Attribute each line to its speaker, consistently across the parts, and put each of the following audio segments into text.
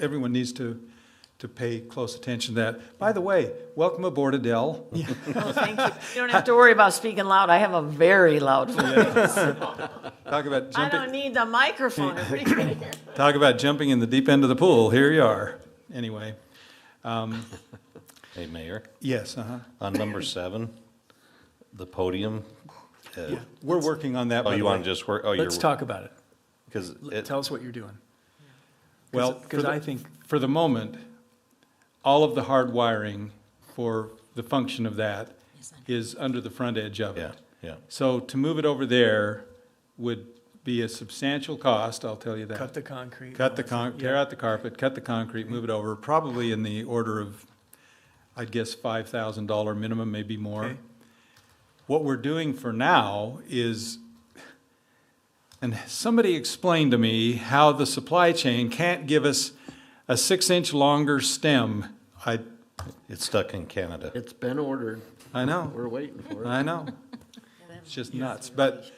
Speaker 1: everyone needs to, to pay close attention to that. By the way, welcome aboard, Adele.
Speaker 2: Oh, thank you. You don't have to worry about speaking loud. I have a very loud voice.
Speaker 1: Talk about
Speaker 2: I don't
Speaker 1: jumping,
Speaker 2: need the microphone.
Speaker 1: talk about jumping in the deep end of the pool. Here you are. Anyway,
Speaker 3: Hey, Mayor,
Speaker 1: yes, uh-huh.
Speaker 3: on number seven, the podium. uh,
Speaker 1: We're working on that.
Speaker 3: Oh, you want to just work, oh, you're.
Speaker 4: Let's talk about it.
Speaker 3: Because
Speaker 4: L- Tell us what you're doing.
Speaker 1: Well, for
Speaker 4: Because
Speaker 1: the-
Speaker 4: I think,
Speaker 1: for the moment, all of the hard wiring for the function of that is under the front edge of
Speaker 3: yeah,
Speaker 1: it.
Speaker 3: yeah.
Speaker 1: So to move it over there would be a substantial cost, I'll tell you that.
Speaker 4: cut the concrete.
Speaker 1: Cut the con, tear out the carpet, cut the concrete, move it over, probably in the order of, I'd guess, five thousand dollar minimum, maybe more.
Speaker 4: Okay.
Speaker 1: What we're doing for now is, and somebody explained to me how the supply chain can't give us a six-inch longer stem. I,
Speaker 3: It's stuck in Canada.
Speaker 5: It's been ordered.
Speaker 1: I know.
Speaker 5: We're waiting for it.
Speaker 1: I know. It's just nuts. But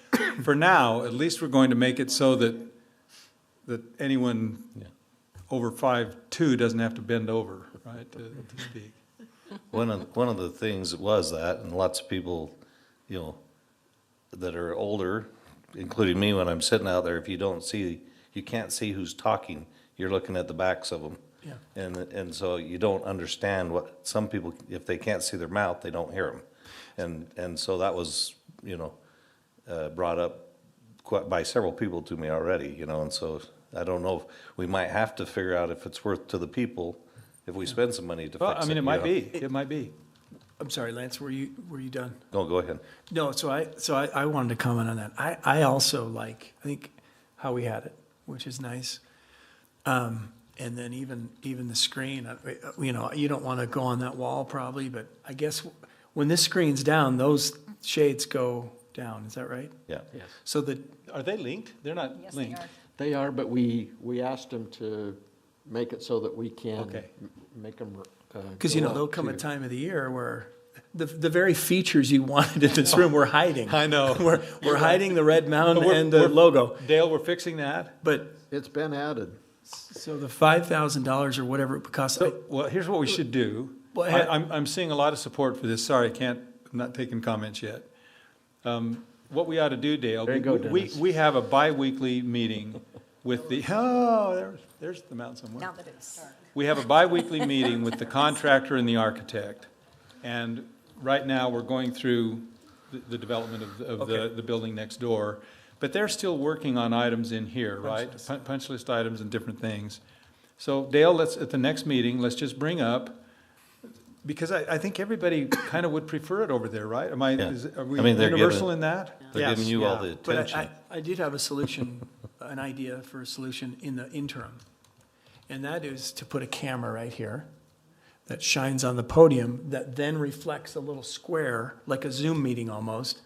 Speaker 1: for now, at least we're going to make it so that, that anyone
Speaker 3: Yeah.
Speaker 1: over five-two doesn't have to bend over, right, to, to speak.
Speaker 3: One of, one of the things was that, and lots of people, you know, that are older, including me, when I'm sitting out there, if you don't see, you can't see who's talking, you're looking at the backs of them.
Speaker 4: Yeah.
Speaker 3: And, and so you don't understand what, some people, if they can't see their mouth, they don't hear them. And, and so that was, you know, uh, brought up quite, by several people to me already, you know, and so I don't know, if we might have to figure out if it's worth to the people, if we spend some money to fix
Speaker 1: Well,
Speaker 3: it.
Speaker 1: I mean, it
Speaker 3: you
Speaker 1: might
Speaker 3: know?
Speaker 1: be, it might be.
Speaker 4: I'm sorry, Lance, were you, were you done?
Speaker 3: No, go ahead.
Speaker 4: No, so I, so I, I wanted to comment on that. I, I also like, I think how we had it, which is nice. Um, and then even, even the screen, uh, you know, you don't want to go on that wall probably, but I guess when this screen's down, those shades go down. Is that right?
Speaker 3: Yeah.
Speaker 5: Yes.
Speaker 4: So the,
Speaker 1: Are they linked? They're not linked.
Speaker 5: They are, but we, we asked them to make it so that we can.
Speaker 1: Okay.
Speaker 5: m- Make uh, them.
Speaker 4: Because you know there'll come a time of the year where the the very features you wanted in this room we're hiding.
Speaker 1: I know.
Speaker 4: we're we're hiding the red
Speaker 1: But
Speaker 4: mountain
Speaker 1: we're-
Speaker 4: and the
Speaker 1: we're-
Speaker 4: logo.
Speaker 1: Dale, we're fixing that?
Speaker 4: But
Speaker 5: It's been added.
Speaker 4: so the five thousand dollars or whatever it costs.
Speaker 1: So, well, here's what we should do.
Speaker 4: Well,
Speaker 1: I,
Speaker 4: ha-
Speaker 1: I'm, I'm seeing a lot of support for this. Sorry, I can't, I'm not taking comments yet. Um, What we ought to do, Dale.
Speaker 5: There you go,
Speaker 1: we-
Speaker 5: Dennis.
Speaker 1: We, we have a bi-weekly meeting with the, oh, there's, there's the mountain somewhere.
Speaker 6: Now that it's dark.
Speaker 1: We have a bi-weekly meeting with the contractor and the architect. And right now, we're going through the, the development of, of the,
Speaker 4: Okay.
Speaker 1: the building next door. But they're still working on items in here, right? Pun- Punch list items and different things. So Dale, let's, at the next meeting, let's just bring up, because I, I think everybody kind of would prefer it over there, right? Am I,
Speaker 3: Yeah.
Speaker 1: is, are we
Speaker 3: I mean, they're given-
Speaker 1: universal in that?
Speaker 3: They're
Speaker 4: Yes.
Speaker 3: giving you all the
Speaker 4: But I-
Speaker 3: attention.
Speaker 4: I, I did have a solution, an idea for a solution in the interim. And that is to put a camera right here that shines on the podium that then reflects a little square, like a Zoom meeting almost,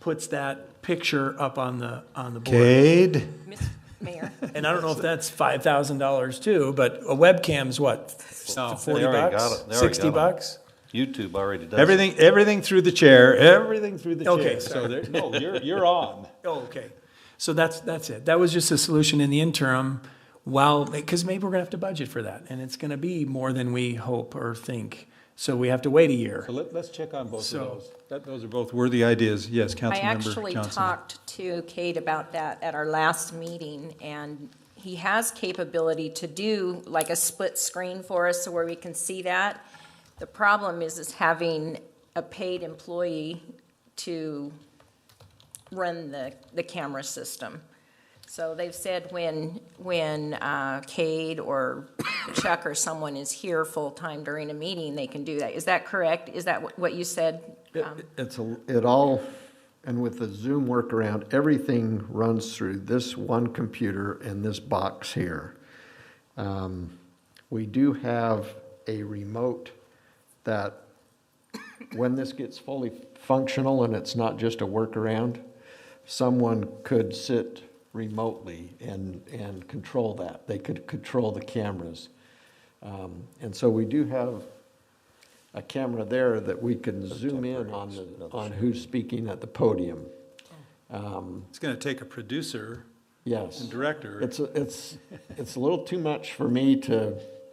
Speaker 4: puts that picture up on the, on the board.
Speaker 1: Cade?
Speaker 6: Mr. Mayor,
Speaker 4: And I don't know if that's five thousand dollars too, but a webcam's what,
Speaker 1: No,
Speaker 4: forty
Speaker 3: already got it. They
Speaker 4: bucks,
Speaker 3: already got
Speaker 4: sixty
Speaker 3: 'em.
Speaker 4: bucks?
Speaker 3: YouTube already does. it.
Speaker 1: Everything, everything through the chair, everything through the chair.
Speaker 4: Okay,
Speaker 1: So there, no, you're, you're on.
Speaker 4: Oh, okay. So that's, that's it. That was just a solution in the interim while, because maybe we're gonna have to budget for that and it's gonna be more than we hope or think. So we have to wait a year.
Speaker 1: So let, let's check on both of
Speaker 4: So-
Speaker 1: those. That, those are both worthy ideas. Yes,
Speaker 6: I
Speaker 1: Councilmember
Speaker 6: actually
Speaker 1: Johnson.
Speaker 6: talked to Kate about that at our last meeting, and he has capability to do like a split screen for us so where we can see that. The problem is, is having a paid employee to run the, the camera system. So they've said when, when uh, Cade or Chuck or someone is here full-time during a meeting, they can do that. Is that correct? Is that what- what you said? Um,
Speaker 5: It's, a it all, and with the Zoom workaround, everything runs through this one computer and this box here. Um, We do have a remote that, when this gets fully functional and it's not just a workaround, someone could sit remotely and, and control that. They could control the cameras. Um, And so we do have a camera there that we can zoom in on, the- on who's speaking at the podium.
Speaker 1: It's gonna take a producer
Speaker 5: Yes.
Speaker 1: and director.
Speaker 5: It's, a- it's, it's a little too much for me to